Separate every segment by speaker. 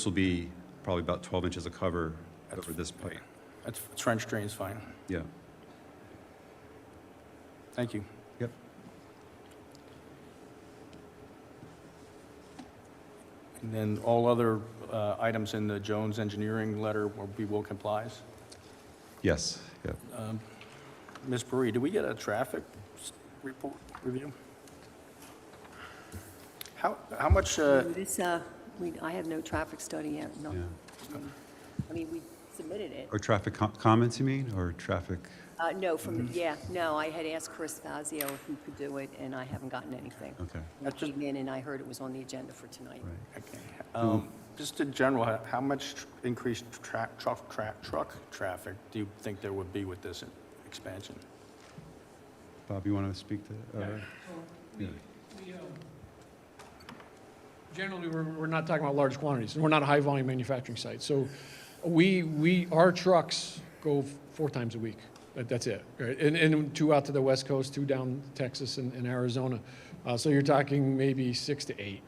Speaker 1: This will be probably about 12 inches of cover over this pipe.
Speaker 2: That's trench drain's fine.
Speaker 1: Yeah.
Speaker 2: Thank you.
Speaker 1: Yep.
Speaker 2: And then all other uh, items in the Jones Engineering letter will be will complies.
Speaker 1: Yes. Yeah.
Speaker 2: Ms. Bree, do we get a traffic s- report review? How, how much, uh,
Speaker 3: This, uh, we, I have no traffic study yet, no.
Speaker 1: Yeah.
Speaker 3: I mean, we submitted it.
Speaker 1: Or traffic co- comments, you mean, or traffic?
Speaker 3: Uh, no, from,
Speaker 1: Mm-hmm.
Speaker 3: yeah, no, I had asked Chris Fazio if he could do it, and I haven't gotten anything.
Speaker 1: Okay.
Speaker 3: I came in and I heard it was on the agenda for tonight.
Speaker 1: Right.
Speaker 2: okay, um, just in general, how- how much tr- increased tra- truck, tra- truck traffic do you think there would be with this expansion?
Speaker 1: Bob, you want to speak to? uh, yeah.
Speaker 4: We, um, Generally, we're, we're not talking about large quantities, and we're not a high-volume manufacturing site. So we, we, our trucks go four times a week. That- That's it, right? And, and two out to the West Coast, two down Texas and, and Arizona. Uh, so you're talking maybe six to eight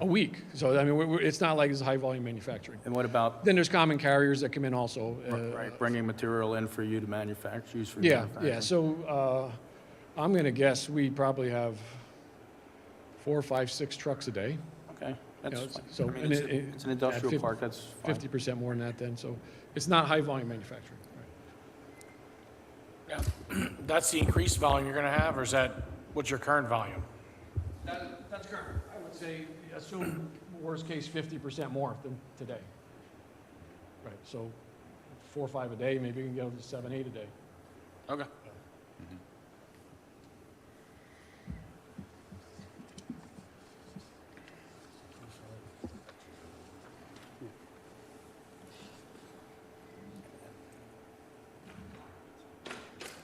Speaker 4: a week. So, I mean, we, we- it's not like it's high-volume manufacturing.
Speaker 2: And what about
Speaker 4: Then there's common carriers that come in also. uh,
Speaker 2: Right, bringing material in for you to manufacture, use for
Speaker 4: Yeah,
Speaker 2: manufacturing.
Speaker 4: yeah, so uh, I'm going to guess we probably have four, five, six trucks a day.
Speaker 2: Okay, that's
Speaker 4: Yeah,
Speaker 2: fine.
Speaker 4: so-
Speaker 2: I mean,
Speaker 4: and
Speaker 2: it's
Speaker 4: it-
Speaker 2: a-
Speaker 4: it-
Speaker 2: it's an
Speaker 4: yeah,
Speaker 2: industrial
Speaker 4: fif-
Speaker 2: park, that's fine.
Speaker 4: 50% more than that then, so it's not high-volume manufacturing.
Speaker 5: Yeah, That's the increased volume you're gonna have, or is that, what's your current volume?
Speaker 4: That's current. I would say, assume worst case 50% more than today. Right, so four, or five a day, maybe you can get up to seven, eight a day.
Speaker 5: Okay.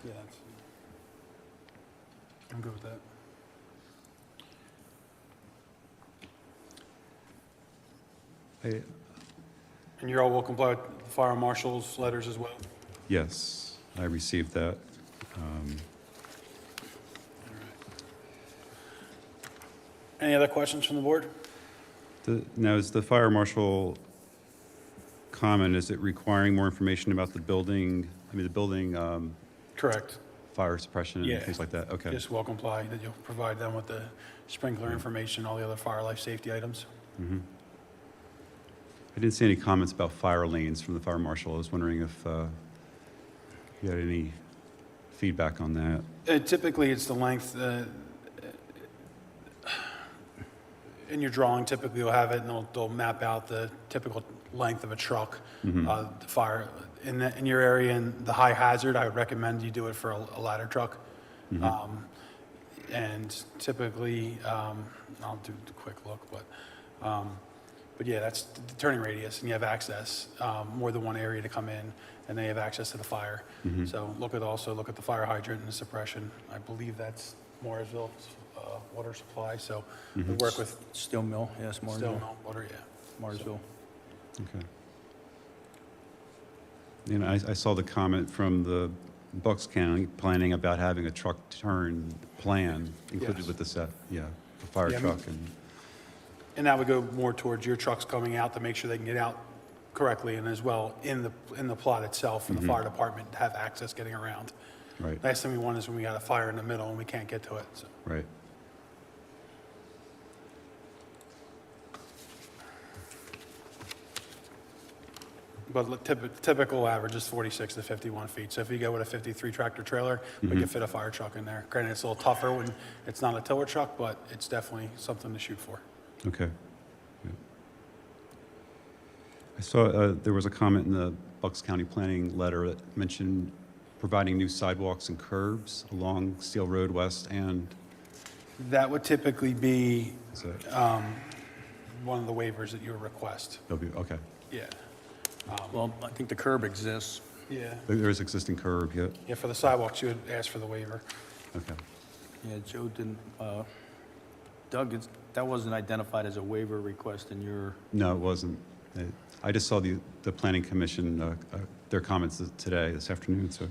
Speaker 2: Yeah, that's. I'm good with that.
Speaker 1: Hey,
Speaker 6: And you're all will comply with the fire marshal's letters as well?
Speaker 1: Yes, I received that. Um,
Speaker 6: Any other questions from the board?
Speaker 1: the- Now, is the fire marshal comment, is it requiring more information about the building? I mean, the building, um,
Speaker 6: Correct.
Speaker 1: fire suppression
Speaker 6: Yeah.
Speaker 1: and things like that? Okay.
Speaker 6: Just will comply, that you'll provide them with the sprinkler information, all the other fire life safety items.
Speaker 1: I didn't see any comments about fire lanes from the fire marshal. I was wondering if uh, you had any feedback on that.
Speaker 6: Uh, Typically, it's the length, uh, in your drawing, typically you'll have it, and they'll, they'll map out the typical length of a truck, uh, the fire, in, the- in your area, and the high hazard, I would recommend you do it for a a ladder truck. Um, And typically, um, I'll do a quick look, but, um, but yeah, that's the turning radius, and you have access, um, more than one area to come in, and they have access to the fire.
Speaker 1: Hmm.
Speaker 6: So look at, also look at the fire hydrant and the suppression. I believe that's Mooresville's uh, water supply, so we
Speaker 4: Mm-hmm.
Speaker 6: work with
Speaker 2: Steel mill, yes,
Speaker 6: Still
Speaker 2: Marsville,
Speaker 6: no water, yeah.
Speaker 2: Marsville.
Speaker 1: Okay. And I, I saw the comment from the Bucks County planning about having a truck turn plan included
Speaker 6: Yes.
Speaker 1: with the set, yeah, the fire
Speaker 6: Yeah, I mean-
Speaker 1: truck and,
Speaker 6: And that would go more towards your trucks coming out to make sure they can get out correctly and as well in the, in the plot itself for the fire department to have access getting around.
Speaker 1: right,
Speaker 6: Last thing we want is when we got a fire in the middle and we can't get to it, so.
Speaker 1: right.
Speaker 6: But look, typ- typical average is 46 to 51 feet. So if you go with a 53 tractor trailer, we can fit a fire truck in there. Granted, it's a little tougher when it's not a tiller truck, but it's definitely something to shoot for.
Speaker 1: Okay. Yeah. I saw, uh, there was a comment in the Bucks County Planning letter that mentioned providing new sidewalks and curbs along Steel Road West and,
Speaker 6: That would typically be
Speaker 1: is that,
Speaker 6: Uh, one of the waivers that you would request.
Speaker 1: W- okay.
Speaker 6: Yeah,
Speaker 2: Well, I think the curb exists.
Speaker 6: yeah.
Speaker 1: There there is existing curb, yeah,
Speaker 6: Yeah, for the sidewalks, you would ask for the waiver.
Speaker 1: okay.
Speaker 2: Yeah, Joe didn't, uh, Doug, it's- that wasn't identified as a waiver request in your,
Speaker 1: No, it wasn't. I- I just saw the, the planning commission, uh, uh, their comments today, this afternoon, so.